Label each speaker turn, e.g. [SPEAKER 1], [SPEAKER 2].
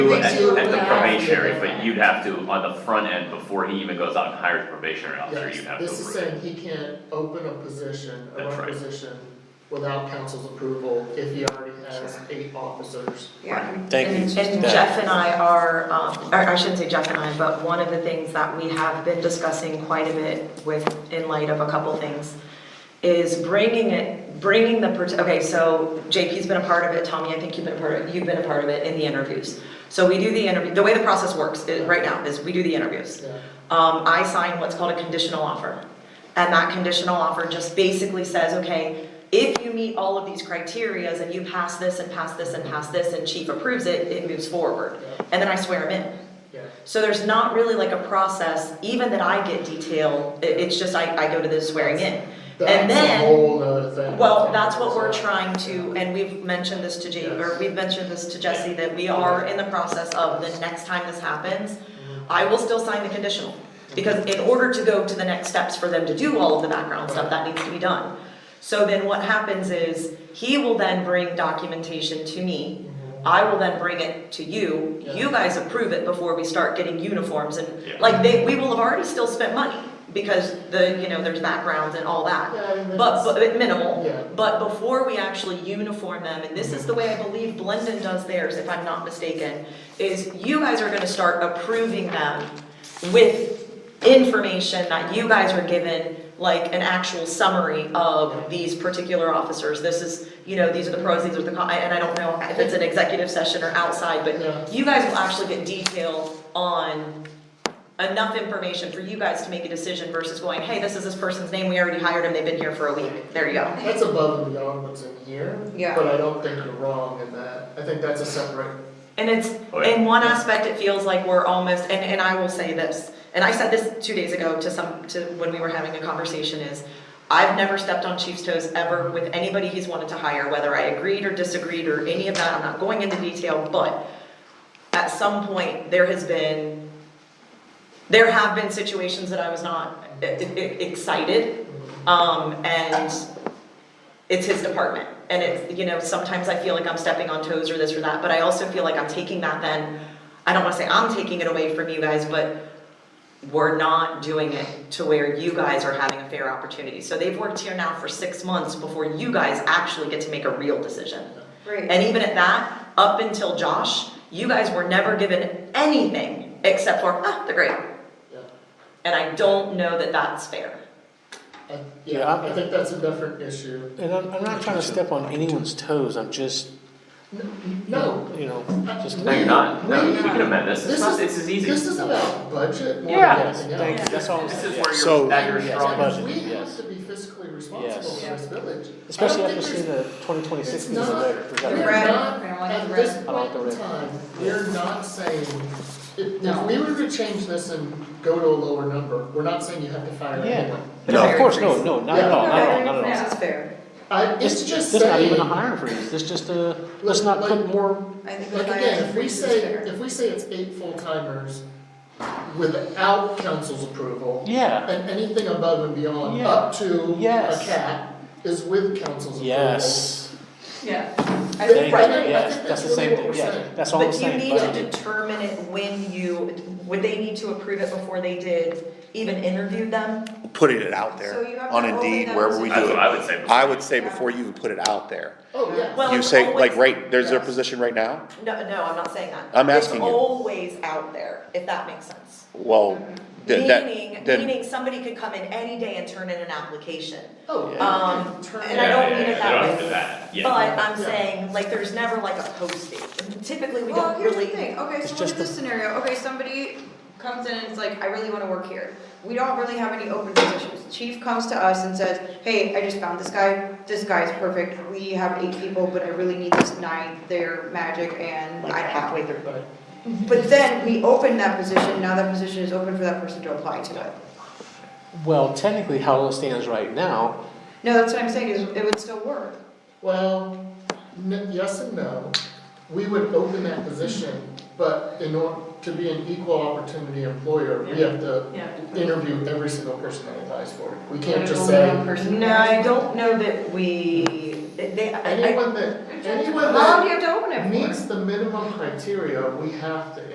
[SPEAKER 1] do
[SPEAKER 2] They
[SPEAKER 1] at,
[SPEAKER 2] do,
[SPEAKER 1] at the
[SPEAKER 2] yeah.
[SPEAKER 1] probationary, but you'd have to, on the front end, before he even goes out and hires a probationary officer,
[SPEAKER 2] Yes,
[SPEAKER 1] you'd have to
[SPEAKER 2] this is
[SPEAKER 1] approve it.
[SPEAKER 2] saying he can't open a position, a
[SPEAKER 1] That's right.
[SPEAKER 2] requisition, without council's approval if he already has eight officers.
[SPEAKER 3] Yeah.
[SPEAKER 4] Thank you.
[SPEAKER 3] And and
[SPEAKER 4] That-
[SPEAKER 3] Jeff and I are, um, or I shouldn't say Jeff and I, but one of the things that we have been discussing quite a bit with, in light of a couple things, is bringing it, bringing the, part- okay, so Jake, he's been a part of it, Tommy, I think you've been a part of, you've been a part of it in the interviews. So we do the interview, the way the process works is, right now, is we do the interviews.
[SPEAKER 2] Yeah.
[SPEAKER 3] um, I sign what's called a conditional offer. And that conditional offer just basically says, okay, if you meet all of these criterias and you pass this and pass this and pass this and chief approves it, it moves forward.
[SPEAKER 2] Yeah.
[SPEAKER 3] And then I swear him in.
[SPEAKER 2] Yeah,
[SPEAKER 3] So there's not really like a process, even that I get detail, it, it's just I, I go to the swearing in.
[SPEAKER 2] that's
[SPEAKER 3] And
[SPEAKER 2] a
[SPEAKER 3] then.
[SPEAKER 2] whole nother thing.
[SPEAKER 3] Well, that's what we're
[SPEAKER 2] So-
[SPEAKER 3] trying to, and we've mentioned this to Jay, or
[SPEAKER 2] Yes.
[SPEAKER 3] we've mentioned this to Jesse, that we are in the process of the next time this happens,
[SPEAKER 2] Mm-hmm.
[SPEAKER 3] I will still sign the conditional. Because in order to go to the next steps for them to do all of the background stuff, that needs to be done. So then what happens is, he will then bring documentation to me, I will then bring it to you,
[SPEAKER 2] Yeah.
[SPEAKER 3] you guys approve it before we start getting uniforms and,
[SPEAKER 1] Yeah.
[SPEAKER 3] like, they, we will have already still spent money, because the, you know, there's backgrounds and all that.
[SPEAKER 2] Yeah, and then
[SPEAKER 3] But,
[SPEAKER 2] it's-
[SPEAKER 3] but but minimal.
[SPEAKER 2] Yeah.
[SPEAKER 3] But before we actually uniform them, and this is the way I believe Blendon does theirs, if I'm not mistaken, is you guys are gonna start approving them with information that you guys are given, like an actual summary of these particular officers. This is, you know, these are the pros, these are the cons, and I don't know if it's an executive session or outside,
[SPEAKER 2] Yeah.
[SPEAKER 3] but you guys will actually get detail on enough information for you guys to make a decision versus going, hey, this is this person's name, we already hired him, they've been here for a week, there you go.
[SPEAKER 2] That's above and beyond what's in here,
[SPEAKER 3] Yeah.
[SPEAKER 2] but I don't think you're wrong in that, I think that's a separate,
[SPEAKER 3] And it's,
[SPEAKER 1] Oh, yeah.
[SPEAKER 3] in one aspect, it feels like we're almost, and, and I will say this, and I said this two days ago to some, to, when we were having a conversation is, I've never stepped on chief's toes ever with anybody he's wanted to hire, whether I agreed or disagreed or any of that, I'm not going into detail, but at some point, there has been, there have been situations that I was not e- e- excited, um, and it's his department. And it's, you know, sometimes I feel like I'm stepping on toes or this or that, but I also feel like I'm taking that then, I don't wanna say I'm taking it away from you guys, but we're not doing it to where you guys are having a fair opportunity. So they've worked here now for six months before you guys actually get to make a real decision.
[SPEAKER 5] Right.
[SPEAKER 3] And even at that, up until Josh, you guys were never given anything except for, ah, they're great.
[SPEAKER 2] yeah,
[SPEAKER 3] And I don't know that that's fair.
[SPEAKER 2] I,
[SPEAKER 4] Yeah,
[SPEAKER 2] yeah,
[SPEAKER 4] I-
[SPEAKER 2] I think that's a different issue.
[SPEAKER 4] And I'm, I'm not trying to step on anyone's toes, I'm just,
[SPEAKER 2] No,
[SPEAKER 4] you know, just.
[SPEAKER 1] No, you're not, no,
[SPEAKER 2] We-
[SPEAKER 1] we can amend this,
[SPEAKER 2] this
[SPEAKER 1] it's not,
[SPEAKER 2] is-
[SPEAKER 1] this is easy.
[SPEAKER 2] this is about budget more than
[SPEAKER 4] Yes,
[SPEAKER 2] anything else.
[SPEAKER 4] thank you, that's all. I'm
[SPEAKER 1] This
[SPEAKER 4] saying.
[SPEAKER 1] is where
[SPEAKER 6] So-
[SPEAKER 1] you're, at your
[SPEAKER 4] Yes,
[SPEAKER 1] strong.
[SPEAKER 4] budget,
[SPEAKER 2] We have
[SPEAKER 4] yes.
[SPEAKER 2] to be fiscally
[SPEAKER 4] Yes.
[SPEAKER 2] responsible for this village. I don't
[SPEAKER 4] Especially
[SPEAKER 2] think
[SPEAKER 4] after
[SPEAKER 2] there's-
[SPEAKER 4] seeing the twenty twenty-six
[SPEAKER 2] It's
[SPEAKER 4] news
[SPEAKER 2] not-
[SPEAKER 4] later. we gotta-
[SPEAKER 2] We're
[SPEAKER 5] Right.
[SPEAKER 2] not,
[SPEAKER 5] Right.
[SPEAKER 2] at this
[SPEAKER 5] Right.
[SPEAKER 2] point in time, we're not saying, if, if we were to change this and go to a lower number, we're not saying you have to fire
[SPEAKER 4] Yeah.
[SPEAKER 2] anyone.
[SPEAKER 4] No, of course, no, no, not at all, not at all, not at all.
[SPEAKER 5] This is fair.
[SPEAKER 2] I, it's
[SPEAKER 4] This,
[SPEAKER 2] just
[SPEAKER 4] this
[SPEAKER 2] saying.
[SPEAKER 4] not even a hiring freeze, this just a, let's not put more,
[SPEAKER 5] I think
[SPEAKER 2] Like
[SPEAKER 5] the
[SPEAKER 2] again, if
[SPEAKER 5] hiring
[SPEAKER 2] we
[SPEAKER 5] freeze is
[SPEAKER 2] say,
[SPEAKER 5] fair.
[SPEAKER 2] if we say it's eight full-timers without council's approval,
[SPEAKER 4] yeah,
[SPEAKER 2] and anything above and beyond,
[SPEAKER 4] Yeah.
[SPEAKER 2] up to a
[SPEAKER 4] Yes.
[SPEAKER 2] cap, is with council's approval.
[SPEAKER 4] yes.
[SPEAKER 5] Yeah.
[SPEAKER 2] I
[SPEAKER 4] Thank
[SPEAKER 2] think,
[SPEAKER 4] you,
[SPEAKER 2] I think- I
[SPEAKER 4] yes,
[SPEAKER 2] think
[SPEAKER 4] that's the
[SPEAKER 2] really
[SPEAKER 4] same
[SPEAKER 2] what
[SPEAKER 4] thing,
[SPEAKER 2] we're
[SPEAKER 4] yeah,
[SPEAKER 2] saying.
[SPEAKER 4] that's all I'm
[SPEAKER 3] But you
[SPEAKER 4] saying.
[SPEAKER 3] need to
[SPEAKER 4] budget.
[SPEAKER 3] determine it when you, would they need to approve it before they did, even interview them?
[SPEAKER 6] putting it out
[SPEAKER 5] So you
[SPEAKER 6] there
[SPEAKER 5] have
[SPEAKER 6] on
[SPEAKER 5] to hold
[SPEAKER 6] Indeed,
[SPEAKER 5] it
[SPEAKER 6] wherever
[SPEAKER 5] out
[SPEAKER 6] we
[SPEAKER 5] to-
[SPEAKER 1] That's
[SPEAKER 6] do
[SPEAKER 1] what I
[SPEAKER 6] it.
[SPEAKER 1] would say.
[SPEAKER 6] I would say before you even put it out there,
[SPEAKER 2] Oh, yeah.
[SPEAKER 3] Well,
[SPEAKER 6] you
[SPEAKER 3] it's
[SPEAKER 6] say,
[SPEAKER 3] always-
[SPEAKER 6] like, right, there's a
[SPEAKER 2] Yes.
[SPEAKER 6] position right now?
[SPEAKER 3] No, no, I'm not saying that.
[SPEAKER 6] I'm asking you.
[SPEAKER 3] It's always out there, if that makes sense.
[SPEAKER 6] Well, th-
[SPEAKER 3] Meaning,
[SPEAKER 6] that, then,
[SPEAKER 3] meaning somebody could come in any day and turn in an application.
[SPEAKER 2] Oh, yeah.
[SPEAKER 3] Um,
[SPEAKER 2] Turn
[SPEAKER 3] and
[SPEAKER 2] it
[SPEAKER 3] I
[SPEAKER 2] out.
[SPEAKER 3] don't mean it that
[SPEAKER 1] Yeah, yeah, yeah, they don't have to do
[SPEAKER 3] way.
[SPEAKER 1] that, yeah.
[SPEAKER 3] But I'm
[SPEAKER 2] Yeah.
[SPEAKER 3] saying, like, there's never like a posting. Typically, we
[SPEAKER 5] Well,
[SPEAKER 3] don't
[SPEAKER 5] here's the
[SPEAKER 3] really.
[SPEAKER 5] thing, okay,
[SPEAKER 4] It's
[SPEAKER 5] so look
[SPEAKER 4] just
[SPEAKER 5] at
[SPEAKER 4] the-
[SPEAKER 5] this scenario, okay, somebody comes in and it's like, I really wanna work here. We don't really have any open positions. Chief comes to us and says, hey, I just found this guy, this guy's perfect, we have eight people, but I really need this nine, they're magic and
[SPEAKER 3] Like
[SPEAKER 5] I have.
[SPEAKER 3] halfway through.
[SPEAKER 2] But-
[SPEAKER 5] But then we open that position, now that position is open for that person to apply to it.
[SPEAKER 4] Well, technically, how it stands right now,
[SPEAKER 5] No, that's what I'm saying, is it would still work.
[SPEAKER 2] Well, n- yes and no. We would open that position, but in order to be an equal opportunity employer, we have to
[SPEAKER 3] Yeah.
[SPEAKER 2] interview every single person that applies for it. We can't just say,
[SPEAKER 3] No, I don't know that we, They, they- I- I-
[SPEAKER 2] Anyone that, anyone
[SPEAKER 5] How long do
[SPEAKER 2] that
[SPEAKER 5] you have to open it for?
[SPEAKER 2] meets the minimum criteria, we have to